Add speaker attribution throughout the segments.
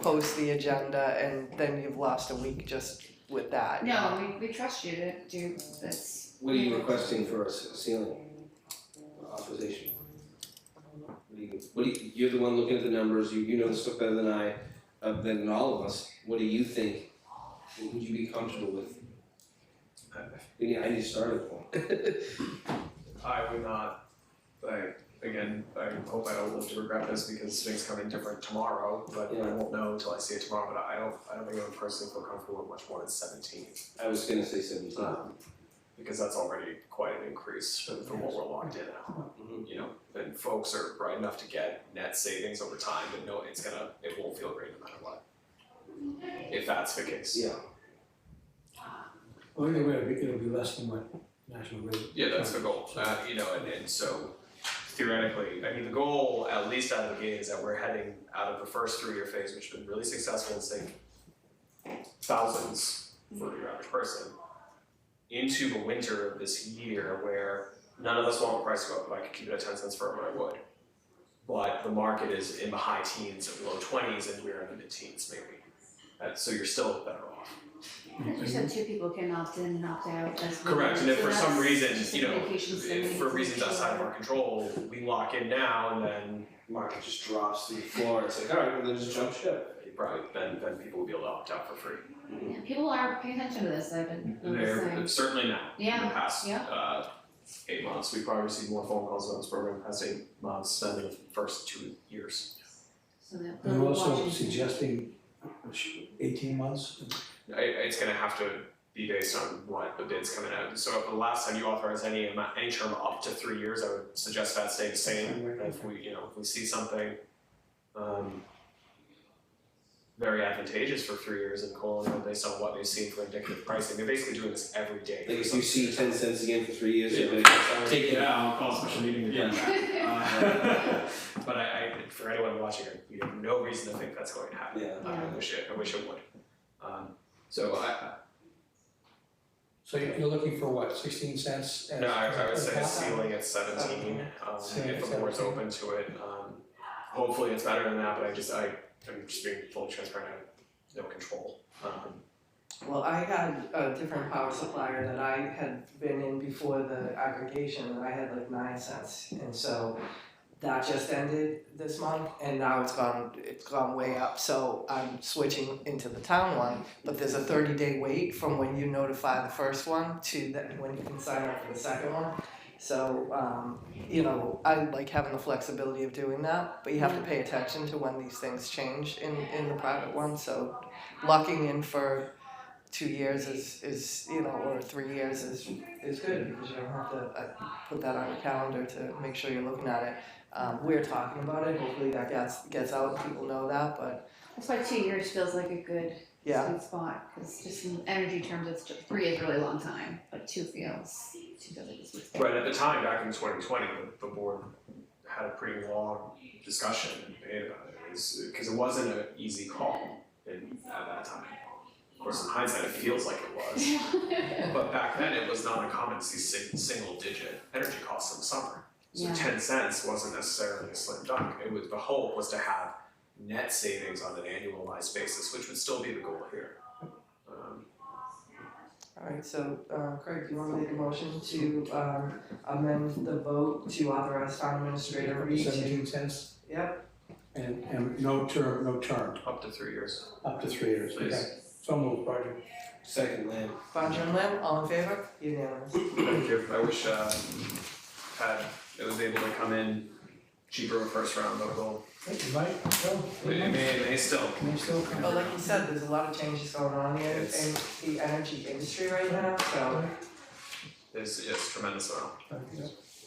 Speaker 1: post the agenda and then you've lost a week just with that.
Speaker 2: No, we, we trust you to do this.
Speaker 3: What are you requesting for a s- ceiling authorization? What do you, what do you, you're the one looking at the numbers, you, you know the stuff better than I, uh, than all of us, what do you think? What would you be comfortable with? I, I need- I need to start with one.
Speaker 4: I would not, like, again, I hope I don't live to regret this because things come in different tomorrow, but I
Speaker 3: Yeah.
Speaker 4: won't know until I see it tomorrow, but I don't, I don't think I would personally feel comfortable with much more than seventeen.
Speaker 3: I was gonna say seventeen.
Speaker 4: Um, because that's already quite an increase from, from what we're locked in at,
Speaker 3: Mhm.
Speaker 4: you know, and folks are bright enough to get net savings over time, but no, it's gonna, it won't feel great no matter what. If that's the case.
Speaker 3: Yeah,
Speaker 5: Well, either way, it'll be- it'll be less than what National Grid.
Speaker 4: Yeah, that's the goal, uh, you know, and, and so theoretically, I mean, the goal, at least out of the gate, is that we're heading out of the first three-year phase, which has been really successful in saving thousands for your average person, into the winter of this year where none of us want the price to go up, if I could keep it at ten cents forever, I would. But the market is in the high teens and low twenties, and we're in the mid-teens maybe, Uh, so you're still better off.
Speaker 2: Because you said two people can opt in and opt out as well.
Speaker 4: Correct, and if
Speaker 2: so
Speaker 4: for some
Speaker 2: that's
Speaker 4: reason,
Speaker 2: just
Speaker 4: you
Speaker 2: the
Speaker 4: know,
Speaker 2: vacation spending
Speaker 4: if for
Speaker 2: and
Speaker 4: reasons
Speaker 2: stuff.
Speaker 4: outside of our control, we lock in now and then
Speaker 3: market just drops through the floor, it's like, alright, well, then just jump ship.
Speaker 4: you probably, then, then people will be able to opt out for free.
Speaker 2: Yeah, people are paying attention to this, I've been
Speaker 4: They're
Speaker 2: noticing.
Speaker 4: certainly now, in the
Speaker 2: Yeah,
Speaker 4: past,
Speaker 2: yeah.
Speaker 4: uh, eight months, we probably received more phone calls about this program in the past eight months than the first two years.
Speaker 2: So that
Speaker 5: They're also
Speaker 2: watching.
Speaker 5: suggesting eighteen months.
Speaker 4: I, it's gonna have to be based on what the bid's coming out, so if the last time you authorized any amount, any term up to three years, I would suggest that stay the same. if we, you know, if we see something um very advantageous for three years in coal, and based on what they've seen for indicative pricing, they're basically doing this every day.
Speaker 3: Like if you see ten cents again for three years, you're like,
Speaker 4: Take it out, I'll call a special meeting
Speaker 3: to do
Speaker 4: that. But I I, for anyone watching, I- we have no reason to think that's going to happen.
Speaker 3: Yeah.
Speaker 4: I wish it, I wish it would. Um so I
Speaker 5: So you're you're looking for what, sixteen cents?
Speaker 4: I,
Speaker 5: as-
Speaker 4: no, I
Speaker 5: as
Speaker 4: I would
Speaker 5: a
Speaker 4: say
Speaker 5: cap?
Speaker 4: ceiling at seventeen, um if the board's open to it, um hopefully it's better than that, but I just I I'm just being fully transparent, I have no control. Um
Speaker 1: Well, I had a different power supplier that I had been in before the aggregation, and I had like nine cents, and so that just ended this month, and now it's gone, it's gone way up, so I'm switching into the town one, but there's a thirty day wait from when you notify the first one to that, when you can sign up for the second one. So, um, you know, I like having the flexibility of doing that, but you have to pay attention to when these things change in, in the private one, so locking in for two years is, is you know, or three years is, is good because you don't have to uh, put that on your calendar to make sure you're looking at it. Um, we're talking about it, hopefully that gets, gets out, people know that, but
Speaker 2: That's why two years feels like a good
Speaker 1: yeah,
Speaker 2: sweet spot, because just in energy terms, it's just, three is a really long time, but two feels, two feels like a sweet spot.
Speaker 4: Right, at the time, back in twenty twenty, the, the board had a pretty long discussion and debate about it, because it wasn't an easy call in, at that time. Of course, in hindsight, it feels like it was, but back then, it was not uncommon to see si- single digit energy costs in the summer. So
Speaker 2: Yeah.
Speaker 4: ten cents wasn't necessarily a slim dunk, it was, the hope was to have net savings on an annualized basis, which would still be the goal here. Um,
Speaker 1: alright, so, uh, Craig, do you wanna make a motion to, um, amend the vote to authorize town administrator Reed to?
Speaker 5: Seventeen cents,
Speaker 1: Yep,
Speaker 5: and, and no term, no term,
Speaker 4: up to three years.
Speaker 5: up to three years,
Speaker 4: Please.
Speaker 5: okay. So moved, Roger.
Speaker 3: second land.
Speaker 1: Bonjour and Lim, all in favor? Unanimous.
Speaker 4: Thank you, I wish, uh, had, it was able to come in cheaper in first round, but we'll,
Speaker 5: Thank you, Mike, Bill,
Speaker 4: it
Speaker 5: Mike,
Speaker 4: may, it may still.
Speaker 5: can you still come?
Speaker 1: But like you said, there's a lot of changes going on here in
Speaker 4: It's-
Speaker 1: the energy industry right now, so.
Speaker 4: It's, it's tremendous amount.
Speaker 5: Okay.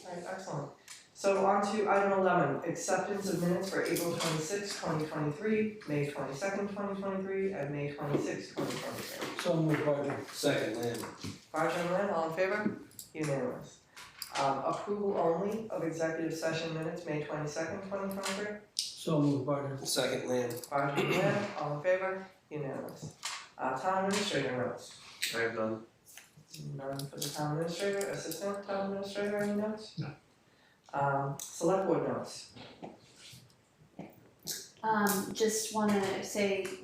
Speaker 1: Alright, excellent. So on to item eleven, acceptance of minutes for April twenty sixth, twenty twenty three, May twenty second, twenty twenty three, and May twenty sixth, twenty twenty three.
Speaker 5: So moved, Roger.
Speaker 3: Second land.
Speaker 1: Roger and Lynn, all in favor? Unanimous. Um, approval only of executive session minutes, May twenty second, twenty twenty three.
Speaker 5: So moved, Roger.
Speaker 3: Second land.
Speaker 1: Roger and Lynn, all in favor? Unanimous. Uh, town administrator notes.
Speaker 4: I have done.
Speaker 1: None for the town administrator, assistant town administrator, any notes? No. Um, select board notes.
Speaker 2: Um, just wanna say